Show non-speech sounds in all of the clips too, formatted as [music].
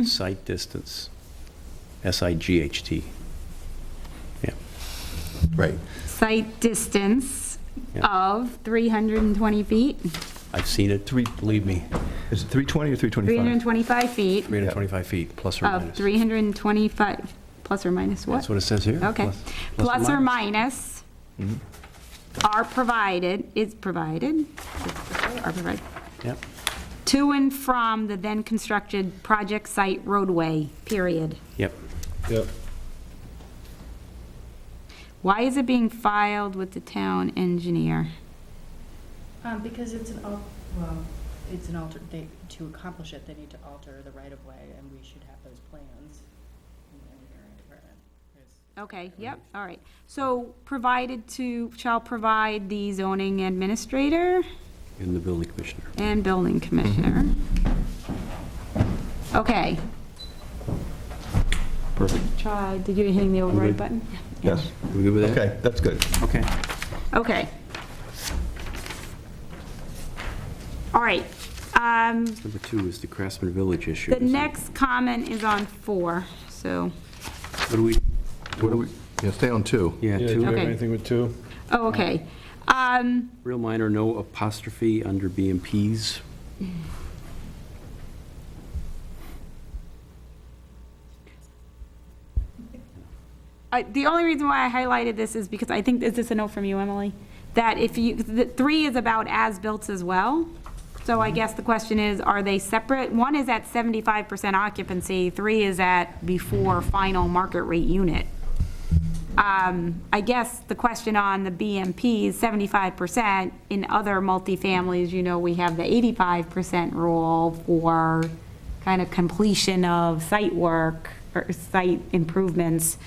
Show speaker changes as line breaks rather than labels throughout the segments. Mm-hmm. Sight distance, S-I-G-H-T. Yeah,
Right.
Site distance
Yeah.
of 320 feet,
I've seen it, three, believe me,
Is it 320 or 325?
325 feet
325 feet, plus or
of
minus.
325, plus or minus what?
That's what it says here.
Okay.
plus- Mm-hmm.
Plus or minus are provided, is provided, are provided,
Yep,
to and from the then-constructed project site roadway, period.
yep.
Yep.
Why is it being filed with the town engineer?
Um, because it's an, al- well, it's an alter, they, to accomplish it, they need to alter the right of way, and we should have those plans in the engineering department. There's-
Okay, yep, all right. So provided to, shall provide the zoning administrator?
In the building commissioner.
And building commissioner.
Mm-hmm.
Okay.
Perfect.
Try, did you hitting the override button?
Yes.
We good with that?
Okay, that's good.
Okay.
Okay. All right. Um,
Number two is the Craftsman Village issue.
The
isn't it?
next comment is on four, so,
What do we,
What do we, yeah, stay on two.
yeah,
Yeah, do you
two,
have
Okay.
anything with two?
oh, okay. Um,
real minor, no apostrophe under B and Ps.
I- The only reason why I highlighted this is because I think, is this a note from you, Emily? That if you, the three is about as-built as well. So I guess the question is, are they separate? One is at 75% occupancy, three is at before final market rate unit. Um, I guess the question on the BMP is 75%. In other multifamilies, you know, we have the 85% rule for kind of completion of site work or site improvements.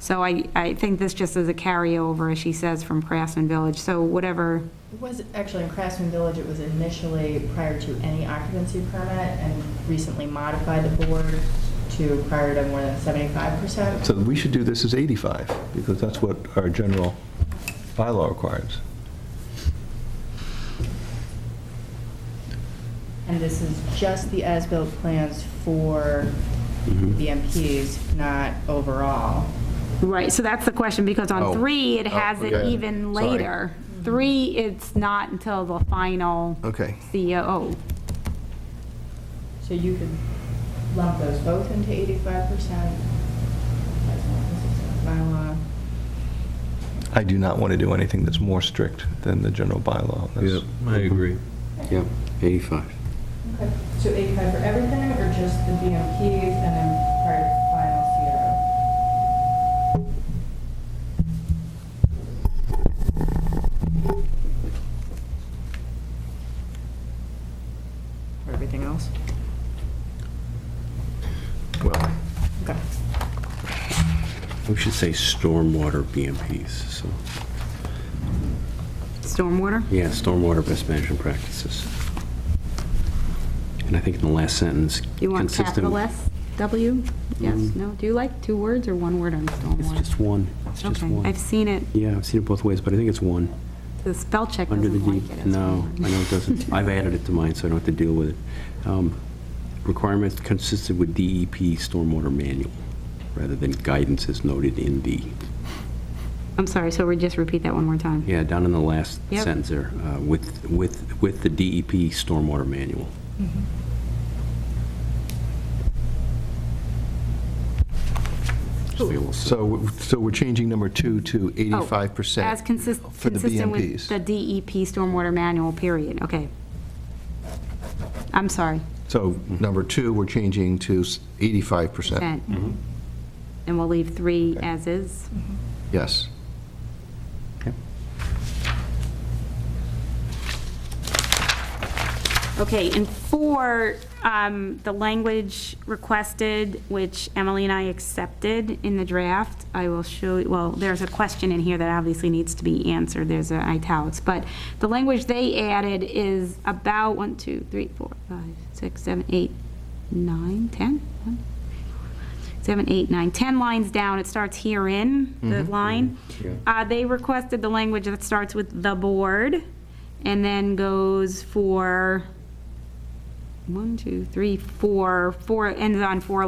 So I, I think this just is a carryover, as she says, from Craftsman Village. So whatever,
It was, actually, in Craftsman Village, it was initially prior to any occupancy permit, and recently modified the board to prior to more than seventy-five percent.
So we should do this as 85, because that's what our general bylaw requires.
And this is just the as-built plans for BMPs, not overall.
right, so that's the question, because
Oh.
on three, it
Oh,
has it
okay.
even
Sorry.
later. Three, it's not until the final E
Okay.
COO.
So you could lump those both into eighty-five percent. Bylaw.
I do not want to do anything that's more strict than the general bylaw. That's-
I agree.
Yep, 85.
Okay, so eighty-five for everything, or just the BMPs and then prior to final zero? For everything else?
Well,
Okay.
We should say stormwater BMPs, so,
Stormwater?
yeah, stormwater best management practices. And I think in the last sentence,
You want capital
consistent. Mm-hmm.
S, W? Yes, no? Do you like two words or one word on
It's
stormwater?
just one, it's just
Okay,
one.
I've seen it,
Yeah, I've seen it both ways, but I think it's one,
the spell check
under the
doesn't
D.
like it. as
No, I
one word.
know it
[laughs]
doesn't, I've added it to mine, so I don't have to deal with it. Um, Requirements consistent with DEP stormwater manual, rather than guidance as noted in the,
I'm sorry, so we just repeat that one more time?
yeah, down in the last
Yep.
sentence there, uh, with, with, with the DEP stormwater manual.
Mm-hmm.
Just like a little-
so, so we're changing number two to 85%.
Oh, As consistent,
for the
consistent with
BMPs.
the DEP stormwater manual, period, okay. I'm sorry,
So number two, we're changing to s- 85%.
Uh,
percent.
mm-hmm.
And we'll leave three as is.
Yes.
Okay, and four, um, the language requested, which Emily and I accepted in the draft, I will show, well, there's a question in here that obviously needs to be answered, there's a italics, but the language they added is about one, two, three, four, five, six, seven, eight, nine, 10? One, seven, eight, nine, 10 lines down, it starts herein, the line. Uh, They requested the language that starts with "the board" and then goes for one, two, three, four, four, ends on four